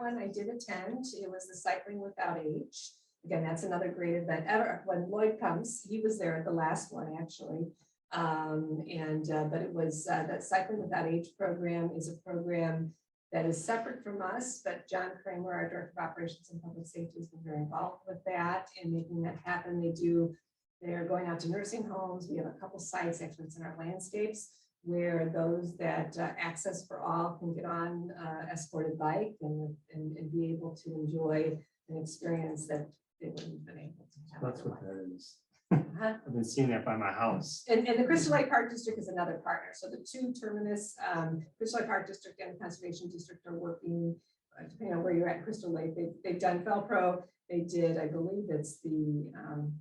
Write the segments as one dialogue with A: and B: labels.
A: one I did attend. It was the Cycling Without Age. Again, that's another great event ever. When Lloyd comes, he was there at the last one, actually. Um, and, uh, but it was, uh, that Cycling Without Age program is a program that is separate from us, but John Kramer, our Director of Operations and Public Safety, has been very involved with that and making that happen. They do, they're going out to nursing homes. We have a couple sites, actually, it's in our landscapes, where those that uh, access for all can get on uh, escorted bike and, and, and be able to enjoy an experience that they wouldn't have been able to have.
B: That's what
A: otherwise.
B: that is.
A: Uh-huh.
B: I've been seeing that by my house.
A: And, and the Crystal Lake Park District is another partner. So the two terminus, um, Crystal Lake Park District and Conservation District are working, uh, depending on where you're at, Crystal Lake, they, they've done Felpro. They did, I believe it's the, um,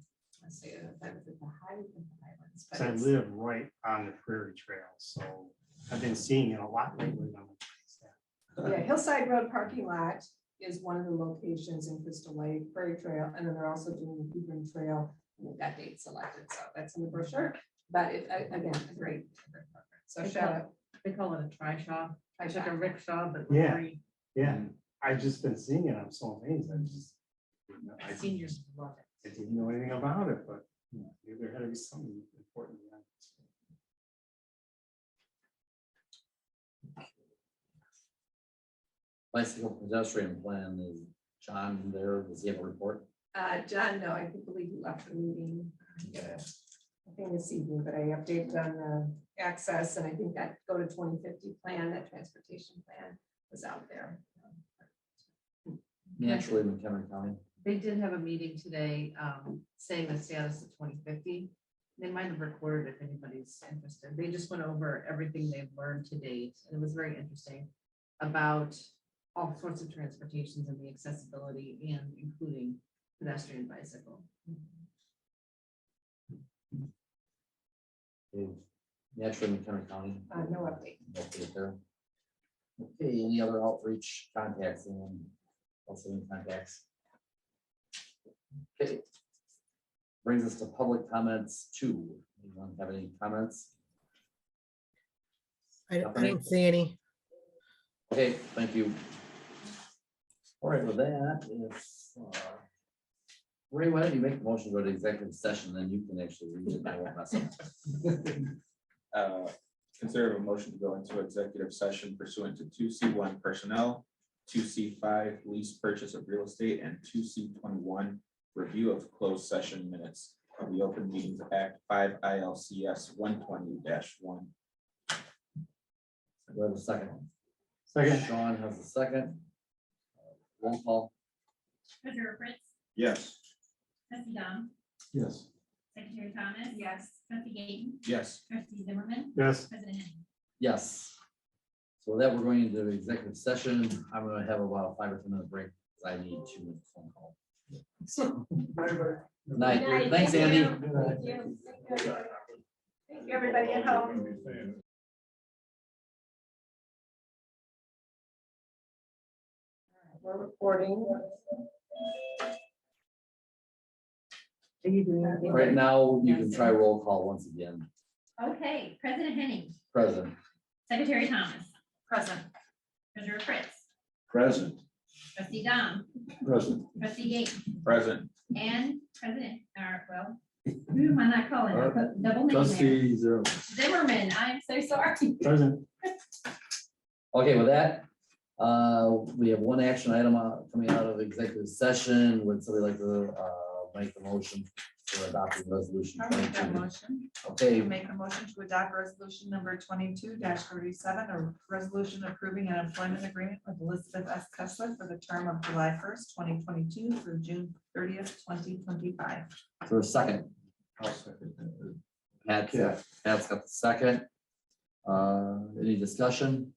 A: let's see, uh, that was at the High- the Highlands. but
B: So I
A: it's-
B: live right on the prairie trail, so I've been seeing it a lot lately. and I'm like, "What's that?"
A: Yeah, Hillside Road parking lot is one of the locations in Crystal Lake Prairie Trail, and then they're also doing the Hebron Trail. and That date selected, so that's in the brochure, but it, a- again, a great. great program. So shout out.
C: They call it a try shop. I took a rickshaw, but
B: Yeah.
C: free.
B: Yeah, I've just been seeing it. I'm so amazed. I'm just. I
C: Seniors love
B: I
C: it.
B: didn't know anything about it, but you know, maybe there had to be something important. behind it.
D: bicycle pedestrian plan is John there, does he have a report?
A: Uh, John, no, I think believe you left the meeting, I think this evening, but I updated on the access, and I think that go to twenty fifty plan, that transportation plan was out there.
D: Naturally, McHenry County.
C: They did have a meeting today, um, saying the status of twenty fifty. They might have recorded if anybody's interested. They just went over everything they've learned to date, and it was very interesting about all sorts of transportations and the accessibility and including pedestrian bicycle.
D: is Naturally, McHenry County.
A: Uh, no update.
D: Update there. Okay, any other outreach contacts and also any contacts? Okay. Brings us to public comments two. Anyone have any comments?
E: I, I
D: Company.
E: don't see any.
D: Okay, thank you. All right, with that, if, uh, Ray, why don't you make a motion to go to executive session, then you can actually read it. I won't mess up.
F: uh, Consider a motion to go into executive session pursuant to two C one personnel, two C five lease purchase of real estate, and two C twenty-one review of closed session minutes of the Open Meetings Act five ILCS one twenty one.
D: We have a second.
B: Second,
D: Sean has a second. Roll call.
G: Treasurer Fritz,
F: Yes.
G: trustee Dom,
B: yes.
G: secretary Thomas.
A: Yes.
G: Trustee Gayton,
F: Yes.
G: trustee Zimmerman,
B: Yes.
G: president Henning.
D: Yes. So with that, we're going into executive session. I'm gonna have about a five or ten minute break. 'cause I need two minutes phone call. Night,
A: Night,
D: thanks,
A: thank
D: Andy.
A: you. Thank you. Thank you, everybody. Thank you, everybody at home. We're recording.
C: Are you doing
D: Right now, you can try roll call once again.
G: Okay, president Henning,
D: Present.
G: secretary Thomas. Present. Treasurer Fritz,
F: Present.
G: trustee Dom,
F: Present.
G: trustee Gayton,
F: Present.
G: and president, or well, who am I not calling? I put double name there.
F: Zero.
G: Zimmerman, I'm so sorry.
B: Present.
D: Okay, with that, uh, we have one action item uh, coming out of executive session. Would somebody like to, uh, make the motion for adopting resolution?
H: I'll make that
D: 22?
H: motion.
D: Okay,
H: We Make a motion to adopt resolution number twenty-two thirty-seven, a resolution approving an employment agreement with Elizabeth S. Kessler for the term of July first, twenty twenty-two through June thirtieth, twenty twenty-five.
D: for a second, Pat,
B: Yeah.
D: Pat's got the second. Uh, any discussion?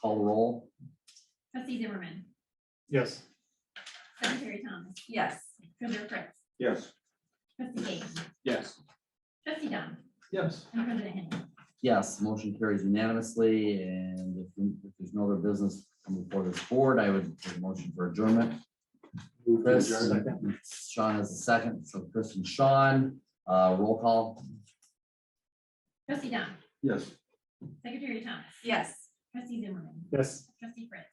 D: Call the roll.
G: Trustee Zimmerman,
B: Yes.
G: secretary Thomas,
H: Yes.
G: treasurer Fritz,
F: Yes.
G: trustee Gayton,
F: Yes.
G: trustee Dom,
F: Yes.
G: and president Henning.
D: Yes, motion carries unanimously, and if if there's no other business come before this board, I would take a motion for adjournment. Chris, Sean has a second, so Chris and Sean, uh, roll call.
G: Trustee Dom,
F: Yes.
G: secretary Thomas,
H: Yes.
G: trustee Zimmerman,
B: Yes.
G: trustee Fritz,